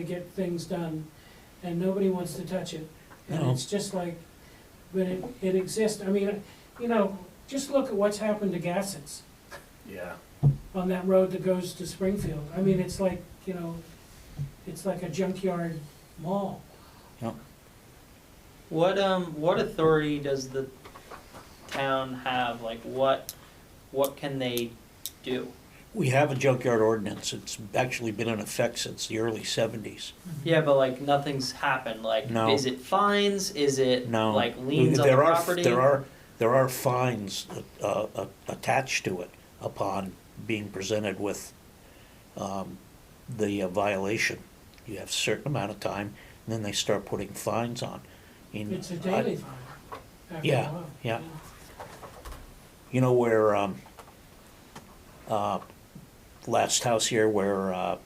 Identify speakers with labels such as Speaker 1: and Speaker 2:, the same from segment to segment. Speaker 1: to get things done, and nobody wants to touch it. And
Speaker 2: No.
Speaker 1: it's just like, but it, it exists, I mean, you know, just look at what's happened to Gassets
Speaker 3: Yeah.
Speaker 1: on that road that goes to Springfield. I mean, it's like, you know, it's like a junkyard mall.
Speaker 4: What um what authority does the town have? Like what what can they do?
Speaker 2: We have a junkyard ordinance. It's actually been in effect since the early seventies.
Speaker 4: Yeah, but like nothing's happened. Like
Speaker 2: No.
Speaker 4: is it fines? Is it
Speaker 2: No.
Speaker 4: like liens on
Speaker 2: There
Speaker 4: the
Speaker 2: are-
Speaker 4: property?
Speaker 2: There are, there are fines uh, uh, attached to it upon being presented with um, the uh, violation. You have a certain amount of time, and then they start putting fines on. And
Speaker 1: It's a
Speaker 2: I-
Speaker 1: daily fire. after a
Speaker 2: Yeah,
Speaker 1: while.
Speaker 2: yeah. You know where, um, uh, last house here where, uh,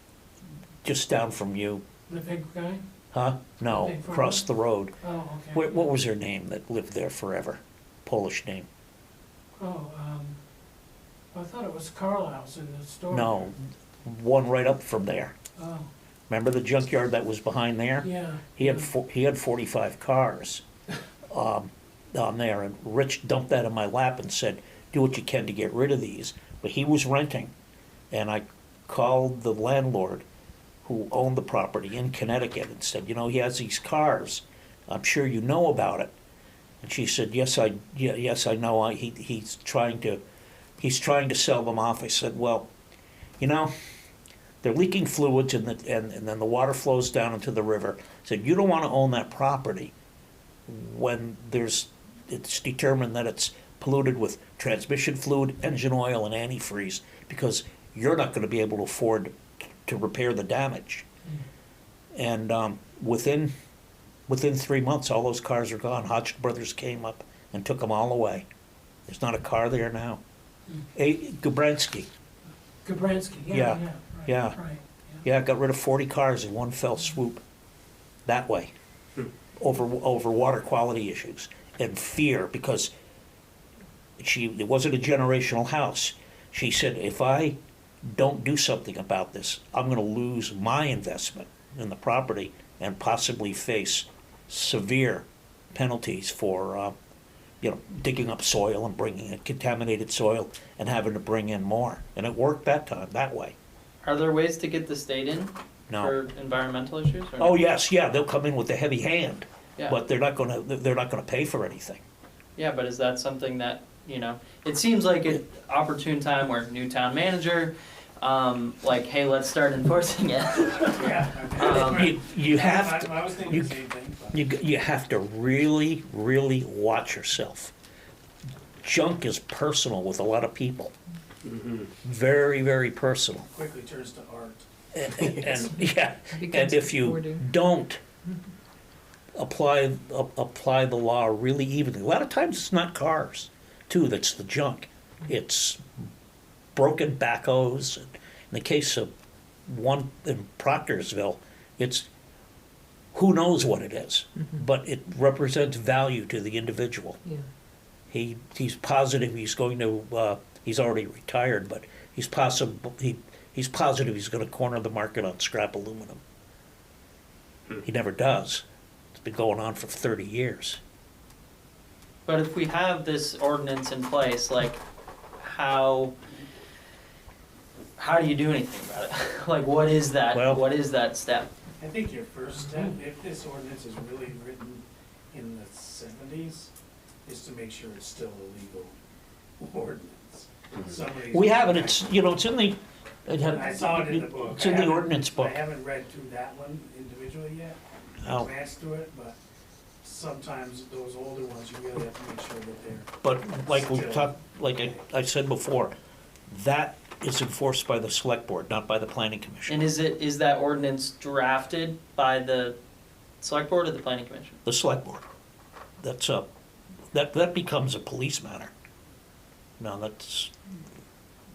Speaker 2: just down from you,
Speaker 1: The big guy?
Speaker 2: huh? No,
Speaker 1: Big farm.
Speaker 2: across the road.
Speaker 1: Oh, okay.
Speaker 2: What, what was her name that lived there forever? Polish name?
Speaker 1: Oh, um, I thought it was Carlisle's in the store.
Speaker 2: No, one right up from there.
Speaker 1: Oh,
Speaker 2: Remember the junkyard that was behind there?
Speaker 1: yeah.
Speaker 2: He had four, he had forty-five cars, um, down there, and Rich dumped that in my lap and said, do what you can to get rid of these, but he was renting. And I called the landlord who owned the property in Connecticut and said, you know, he has these cars, I'm sure you know about it. And she said, yes, I, ye- yes, I know, I, he, he's trying to, he's trying to sell them off. I said, well, you know, they're leaking fluids and, the, and, and then the water flows down into the river. So you don't want to own that property when there's, it's determined that it's polluted with transmission fluid, engine oil, and antifreeze because you're not going to be able to afford to repair the damage. And um, within, within three months, all those cars are gone. Hodge Brothers came up and took them all away. There's not a car there now. A, Gubransky,
Speaker 1: Gabransky, yeah, yeah,
Speaker 2: Yeah,
Speaker 1: right,
Speaker 2: yeah.
Speaker 1: right,
Speaker 2: Yeah, I got rid of forty cars in one fell swoop, that way,
Speaker 3: Hmm.
Speaker 2: over over water quality issues and fear because she it wasn't a generational house. She said, if I don't do something about this, I'm going to lose my investment in the property and possibly face severe penalties for. Uh, you know, digging up soil and bringing in contaminated soil and having to bring in more. And it worked that time, that way.
Speaker 4: Are there ways to get the state in
Speaker 2: No.
Speaker 4: for environmental issues? Or
Speaker 2: Oh yes, yeah, they'll come in with a heavy hand,
Speaker 4: yeah.
Speaker 2: but they're not gonna they're not gonna pay for anything.
Speaker 4: Yeah, but is that something that, you know, it seems like an opportune time where new town manager, um, like, hey, let's start enforcing it. Um,
Speaker 2: You, you have to
Speaker 3: I, I was thinking
Speaker 2: you-
Speaker 3: the same thing. But.
Speaker 2: you, you have to really really watch yourself. Junk is personal with a lot of people,
Speaker 4: Mm-hmm.
Speaker 2: very very personal,
Speaker 3: Quickly turns to art.
Speaker 2: and, and yeah, and if you don't apply a- apply the law really evenly, a lot of times it's not cars too that's the junk. It's broken backhoes. In the case of one in Proctorsville, it's who knows what it is, but it represents value to the individual.
Speaker 5: Yeah.
Speaker 2: He he's positive he's going to. Uh, he's already retired, but he's possible. He he's positive he's going to corner the market on scrap aluminum.
Speaker 3: Hmm.
Speaker 2: He never does. It's been going on for thirty years.
Speaker 4: But if we have this ordinance in place, like, how, how do you do anything about it? Like, what is that,
Speaker 2: Well-
Speaker 4: what is that step?
Speaker 3: I think your first step,
Speaker 2: Mm-hmm.
Speaker 3: if this ordinance is really written in the seventies, is to make sure it's still a legal ordinance. Somebody's-
Speaker 2: We haven't. It's you know it's in the. It had,
Speaker 3: I saw it in the book.
Speaker 2: It's in
Speaker 3: I
Speaker 2: the
Speaker 3: haven't-
Speaker 2: ordinance book.
Speaker 3: I haven't read through that one individually yet.
Speaker 2: Oh.
Speaker 3: Glanced through it, but sometimes those older ones, you really have to make sure that they're,
Speaker 2: But like we
Speaker 3: Still.
Speaker 2: talked, like I, I said before, that is enforced by the select board, not by the planning commission.
Speaker 4: And is it, is that ordinance drafted by the select board or the planning commission?
Speaker 2: The select board. That's a, that, that becomes a police matter. Now, that's,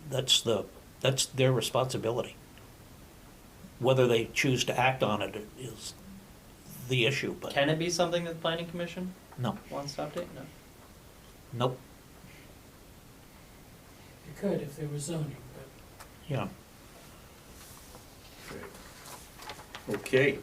Speaker 2: that's the, that's their responsibility. Whether they choose to act on it is the issue, but
Speaker 4: Can it be something that the planning commission
Speaker 2: no,
Speaker 4: wants to update? No.
Speaker 2: nope,
Speaker 1: You could if there was zoning, but
Speaker 2: yeah.
Speaker 5: Okay.